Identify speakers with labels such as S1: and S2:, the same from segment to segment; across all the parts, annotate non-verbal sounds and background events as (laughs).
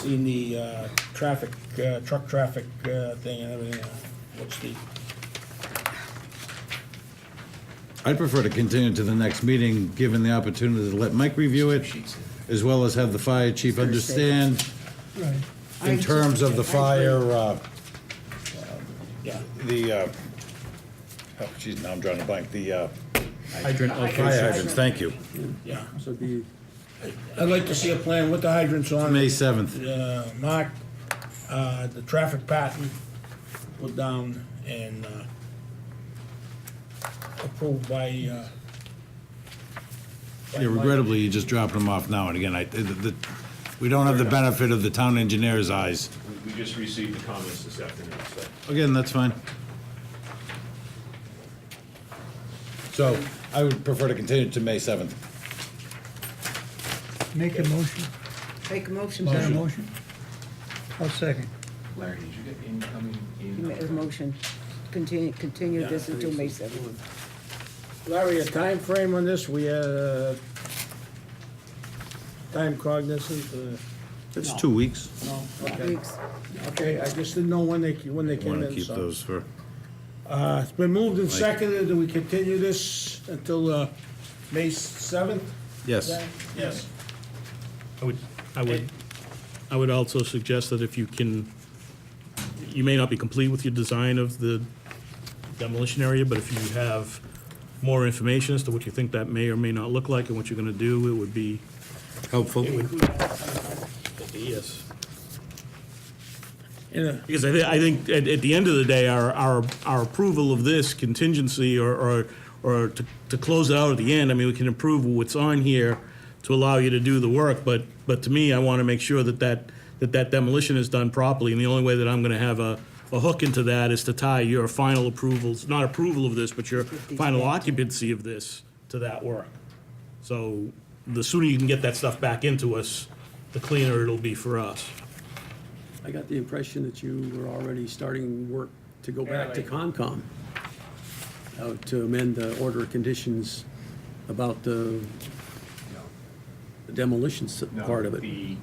S1: seen the uh, traffic, uh, truck traffic uh, thing and everything. uh, What's the,
S2: I'd prefer to continue to the next meeting, given the opportunity to let Mike review it, as well as have the fire chief understand
S3: Right.
S2: in terms of the fire, uh,
S1: yeah,
S2: the, uh, oh, geez, now I'm drawing a blank, the, uh,
S4: Hydrant
S2: fire
S4: location.
S2: hydrants, thank you.
S1: yeah.
S4: So the,
S1: I'd like to see a plan with the hydrants on
S2: May
S1: it,
S2: seventh,
S1: uh, mark, uh, the traffic pattern put down and uh, approved by. uh, by
S2: yeah, regrettably, you're just dropping them off now and again, I, the, the, we don't have the benefit of the town engineer's eyes.
S5: We- We just received the comments this afternoon, so.
S2: Again, that's fine. So, I would prefer to continue to May seventh.
S3: Make a motion.
S6: Make a motion.
S3: Is that a
S6: Barry.
S3: motion? I'll second.
S7: Larry, did you get incoming
S6: You make a
S7: email?
S6: motion. Continue, continue this until May seventh.
S1: Mike. Larry, a time frame on this, we, uh, time cognizant, uh,
S2: It's two weeks.
S1: no, okay.
S6: Weeks.
S1: Okay, I just didn't know when they, when they came
S2: Want
S1: in,
S2: to keep
S1: so.
S2: those for,
S1: Uh, It's been moved and seconded, and we continue this until uh, May 7th?
S2: yes.
S1: Yes.
S8: I would, I would, I would also suggest that if you can, you may not be complete with your design of the demolition area, but if you have more information as to what you think that may or may not look like and what you're gonna do, it would be,
S2: Helpful.
S8: yes.
S1: Yeah.
S8: Because I, thi- I think at, at the end of the day, our, our, our approval of this contingency or, or, or to, to close it out at the end, I mean, we can approve what's on here to allow you to do the work, but, but to me, I want to make sure that that, that that demolition is done properly. And the only way that I'm going to have a, a hook into that is to tie your final approvals, not approval of this, but your final occupancy of this to that work. So the sooner you can get that stuff back into us, the cleaner it'll be for us.
S4: I got the impression that you were already starting work to go back to Concom uh, to amend the order of conditions about the the demolition s-
S5: No,
S4: part of it.
S5: the-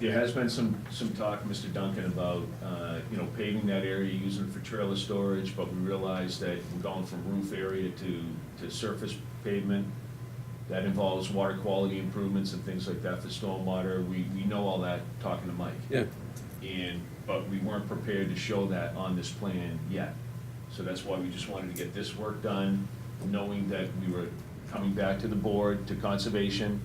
S5: There has been some, some talk, Mr. Duncan, about, uh, you know, paving that area, using it for trailer storage, but we realized that we're going from roof area to, to surface pavement. That involves water quality improvements and things like that for stormwater. We, we know all that, talking to Mike.
S4: Yeah,
S5: And, but we weren't prepared to show that on this plan yet. So that's why we just wanted to get this work done, knowing that we were coming back to the board, to conservation,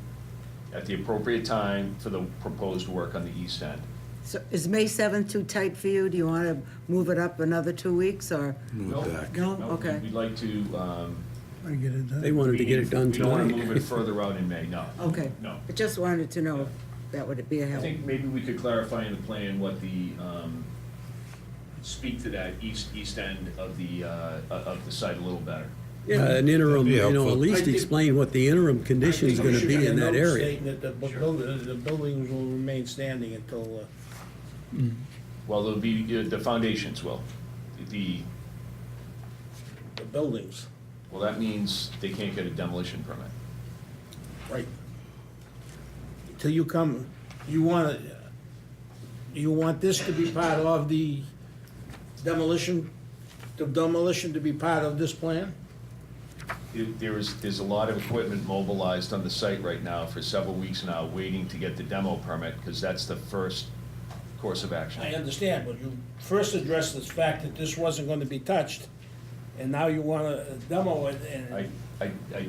S5: at the appropriate time for the proposed work on the east end.
S6: So is May seventh too tight for you? Do you want to move it up another two weeks or?
S5: Move
S2: back.
S6: No, okay.
S5: We'd like to, um.
S3: I get it
S4: they
S3: done.
S4: wanted to get it done
S5: We don't want to move it
S4: tonight.
S5: further out in May, no.
S6: (laughs) Okay.
S5: No.
S6: I just wanted to know if that would be a
S5: I
S6: help.
S5: think maybe we could clarify in the plan what the, um, speak to that east, east end of the, uh, of the site a little better.
S4: (laughs) Yeah, an interim,
S2: That'd be
S4: you know, at
S2: helpful.
S4: least explain what the interim condition is gonna be in that area.
S1: Stating that the bu- building, the buildings will remain standing until, uh,
S5: Well, there'll be, the the foundations will. The,
S1: the buildings,
S5: well, that means they can't get a demolition permit.
S1: right? Till you come, you want, it, uh, you want this to be part of the demolition, the demolition to be part of this plan?
S5: It- There is, there's a lot of equipment mobilized on the site right now for several weeks now, waiting to get the demo permit, because that's the first course of
S1: I
S5: action.
S1: understand, but you first addressed this fact that this wasn't gonna be touched, and now you wanna demo it
S5: I,
S1: and,
S5: I, I,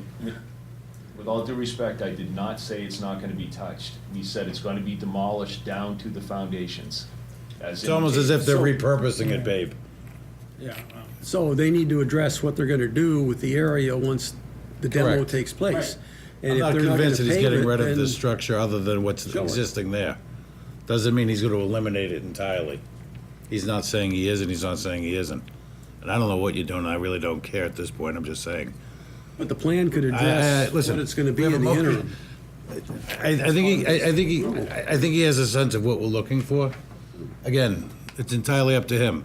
S5: with all due respect, I did not say it's not gonna be touched. We said it's gonna be demolished down to the foundations.
S2: It's almost as if they're repurposing it, babe.
S1: yeah. uh,
S4: So they need to address what they're gonna do with the area once the demo
S2: Correct.
S4: takes place. And
S2: I'm
S4: if
S2: not
S4: they're gonna
S2: convinced that he's
S4: pave
S2: getting
S4: it,
S2: rid of
S4: then-
S2: this structure other than what's
S4: Sure.
S2: existing there. Doesn't mean he's gonna eliminate it entirely. He's not saying he is and he's not saying he isn't. And I don't know what you're doing, I really don't care at this point, I'm just saying.
S4: But the plan could
S2: I- I-
S4: address what
S2: listen,
S4: it's gonna be
S2: we have
S4: in
S2: a
S4: the
S2: motion.
S4: interim.
S2: I, I think he, I, I think he, I I think he has a sense of what we're looking for. Again, it's entirely up to him.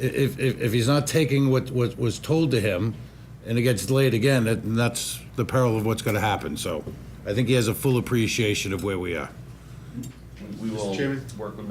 S2: I- If, if, if he's not taking what, what was told to him, and it gets delayed again, that- then that's the peril of what's gonna happen, so. I think he has a full appreciation of where we are.
S5: we will
S9: Chairman?
S5: work with